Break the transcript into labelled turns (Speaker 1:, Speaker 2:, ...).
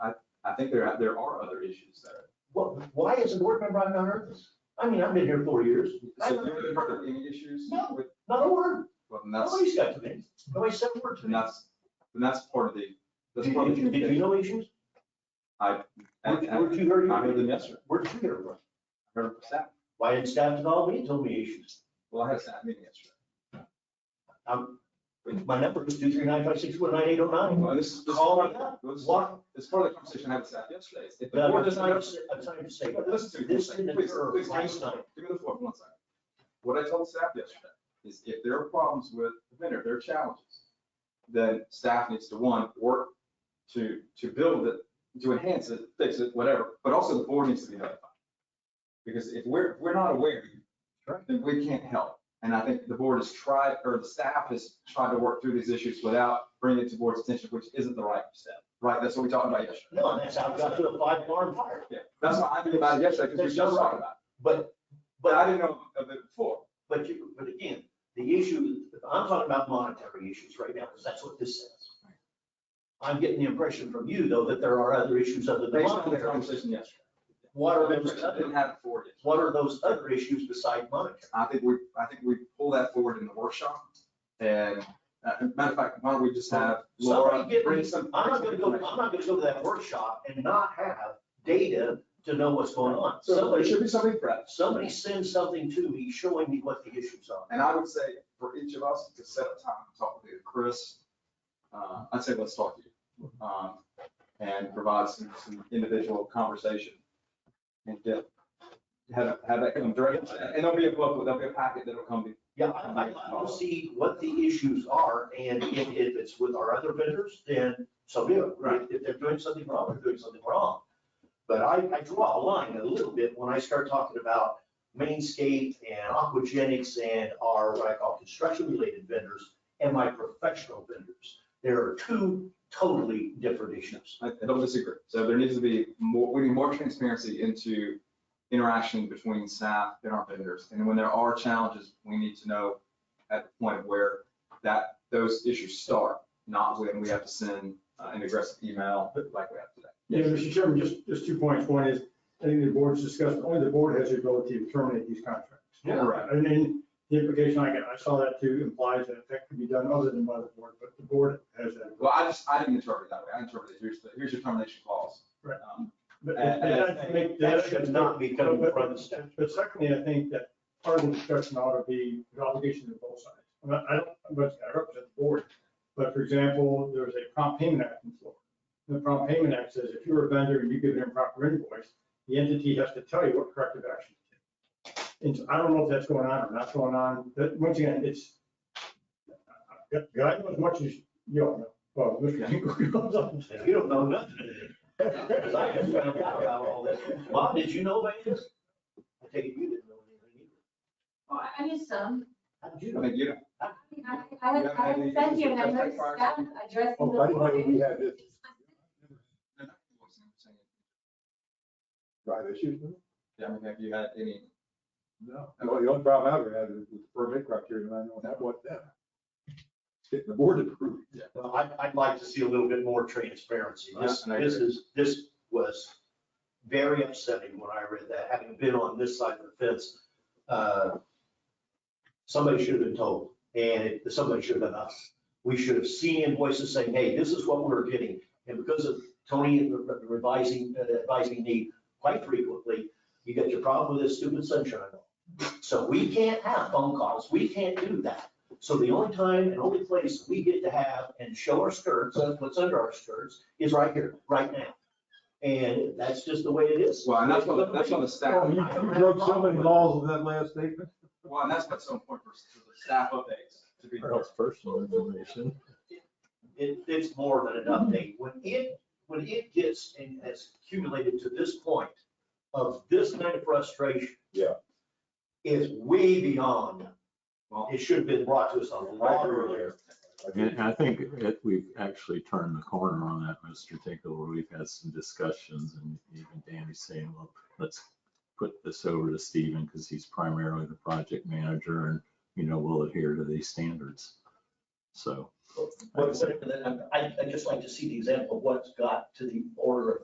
Speaker 1: I think there, are- there are other issues there.
Speaker 2: What, why is a board member on earth this? I mean, I've been here four years. I've
Speaker 1: So
Speaker 2: never
Speaker 1: there
Speaker 2: heard
Speaker 1: are any issues?
Speaker 2: No.
Speaker 1: with-
Speaker 2: Not a word.
Speaker 1: Well, and that's,
Speaker 2: Nobody's got to me. Nobody said a word to
Speaker 1: and
Speaker 2: me.
Speaker 1: that's, and that's part of the, that's
Speaker 2: Did
Speaker 1: part of
Speaker 2: did
Speaker 1: the.
Speaker 2: you, did you know issues?
Speaker 1: I, I,
Speaker 2: Where'd where'd
Speaker 1: I
Speaker 2: you hear?
Speaker 1: I heard them, yes, sir.
Speaker 2: Where'd you hear it from?
Speaker 1: heard from staff.
Speaker 2: Why didn't staff involve me and told me issues?
Speaker 1: Well, I had a staff meeting yesterday.
Speaker 2: Um, my number is two three nine five six one nine eight oh nine.
Speaker 1: Well, this is, this is
Speaker 2: Call
Speaker 1: part
Speaker 2: me up.
Speaker 1: of, this is-
Speaker 2: What?
Speaker 1: this is part of the conversation I had with staff yesterday. If the
Speaker 2: No,
Speaker 1: board
Speaker 2: I'm
Speaker 1: doesn't
Speaker 2: trying to
Speaker 1: have-
Speaker 2: say, I'm trying to say,
Speaker 1: But Listen to me,
Speaker 2: this
Speaker 1: please,
Speaker 2: didn't
Speaker 1: please,
Speaker 2: occur
Speaker 1: please,
Speaker 2: last
Speaker 1: give me-
Speaker 2: night.
Speaker 1: give me the floor for one second. What I told staff yesterday is if there are problems with the vendor, if there are challenges, then staff needs to, one, work to, to build it, to enhance it, fix it, whatever, but also the board needs to be notified. Because if we're, we're not aware,
Speaker 2: Correct.
Speaker 1: then we can't help. And I think the board has tried, or the staff has tried to work through these issues without bringing it to board's attention, which isn't the right step, right? That's what we talked about yesterday.
Speaker 2: No, and that's how I got to a five alarm fire.
Speaker 1: Yeah, that's why I knew about it yesterday, because we just talked about it.
Speaker 2: But,
Speaker 1: But
Speaker 2: but
Speaker 1: I didn't know of it before.
Speaker 2: But you, but again, the issue, I'm talking about monetary issues right now, because that's what this says. I'm getting the impression from you, though, that there are other issues other than
Speaker 1: Based on the
Speaker 2: monetary.
Speaker 1: conversation yesterday.
Speaker 2: What are those
Speaker 1: I Didn't
Speaker 2: other,
Speaker 1: have it for you.
Speaker 2: what are those other issues beside monetary?
Speaker 1: I think we, I think we pull that forward in the workshop. And, uh, matter of fact, why don't we just have Laura
Speaker 2: Somebody get
Speaker 1: bring
Speaker 2: me,
Speaker 1: some.
Speaker 2: I'm not gonna go, I'm not gonna go to that workshop and not have data to know what's going on.
Speaker 1: So there
Speaker 2: Somebody,
Speaker 1: should be something fresh.
Speaker 2: somebody send something to me showing me what the issues are.
Speaker 1: And I would say for each of us to set a time to talk with you, Chris, uh, I'd say let's talk to you. um, And provide some, some individual conversation. And get, have, have that come directly. And there'll be a book, there'll be a packet that'll come to
Speaker 2: Yeah, I, I want to see what the issues are, and if, if it's with our other vendors, then so be it.
Speaker 1: Right.
Speaker 2: If they're doing something wrong, they're doing something wrong. But I, I draw a line a little bit when I start talking about Mainscape and Aquagenics and our, what I call construction-related vendors and my professional vendors. There are two totally different issues.
Speaker 1: I I don't disagree. So there needs to be more, we need more transparency into interaction between staff and our vendors. And when there are challenges, we need to know at the point where that, those issues start, not when we have to send uh, an aggressive email like we have today.
Speaker 3: Yeah, Mr. Chairman, just, just two points. One is, I think the board's discussed, only the board has the ability to terminate these contracts.
Speaker 1: Yeah. Right.
Speaker 3: And then the implication I got, I saw that too, implies that that could be done other than by the board, but the board has that.
Speaker 1: Well, I just, I didn't interpret it that way. I interpreted, it, here's, the- here's your termination clause.
Speaker 3: Right.
Speaker 1: Um,
Speaker 3: But
Speaker 1: And- and I
Speaker 3: I think
Speaker 2: Uh, That should not be coming
Speaker 3: But-
Speaker 2: from the staff.
Speaker 3: But secondly, I think that part of the discussion ought to be the obligation of both sides. I mean, I don't, I'm not- I represent the board, but for example, there was a prompt payment act in Florida. The prompt payment act says if you're a vendor and you give an improper invoice, the entity has to tell you what corrective action to take. And so I don't know if that's going on or not going on, but once again, it's, God knows as much as you all know. Well, Mr. Hinkle knows all this.
Speaker 2: You don't know nothing. Because I just found out about all this. Bob, did you know about this? I take it you didn't know anything
Speaker 4: Well, I- I just, um,
Speaker 2: either. How did you
Speaker 1: I
Speaker 2: know?
Speaker 1: mean, you know,
Speaker 4: I, I
Speaker 1: You
Speaker 4: had,
Speaker 1: haven't
Speaker 4: I
Speaker 1: had
Speaker 4: had
Speaker 1: any
Speaker 4: sent you and I
Speaker 1: issues with
Speaker 4: noticed
Speaker 1: that
Speaker 4: staff addressing the
Speaker 5: Oh, I didn't know we
Speaker 4: board.
Speaker 5: had this right issue.
Speaker 1: yeah, I mean, have you had any?
Speaker 5: No. Well, the only problem I ever had is with the permit criteria, and I know that wasn't them. Getting the board to approve.
Speaker 2: Well, I, I'd like to see a little bit more transparency. This,
Speaker 1: Yeah, and I
Speaker 2: this
Speaker 1: agree.
Speaker 2: is, this was very upsetting when I read that, having been on this side of the fence. uh, Somebody should have been told, and it- somebody should have been us. We should have seen invoices saying, hey, this is what we're getting. And because of Tony revising, uh, advising me quite frequently, you got your problem with this stupid sunshine law. So we can't have phone calls, we can't do that. So the only time and only place we get to have and show our skirts, uh, what's under our skirts, is right here, right now. And that's just the way it is.
Speaker 1: Well, and that's on, the- that's on the staff.
Speaker 2: you- you broke so many
Speaker 5: laws in that last statement.
Speaker 1: Well, and that's what's so important for for the staff updates to be.
Speaker 5: personal information.
Speaker 2: It, it's more than an update. When it, when it gets and has accumulated to this point of this kind of frustration.
Speaker 5: Yeah.
Speaker 2: Is way beyond,
Speaker 1: Well,
Speaker 2: it should have been brought to us a lot earlier.
Speaker 6: And I think it, we've actually turned the corner on that, Mr. Tinkle, where we've had some discussions and even Danny saying, well, let's put this over to Stephen because he's primarily the project manager and, you know, will adhere to these standards. So.
Speaker 2: But whatever that- I'd, I'd just like to see the example of what's got to the order of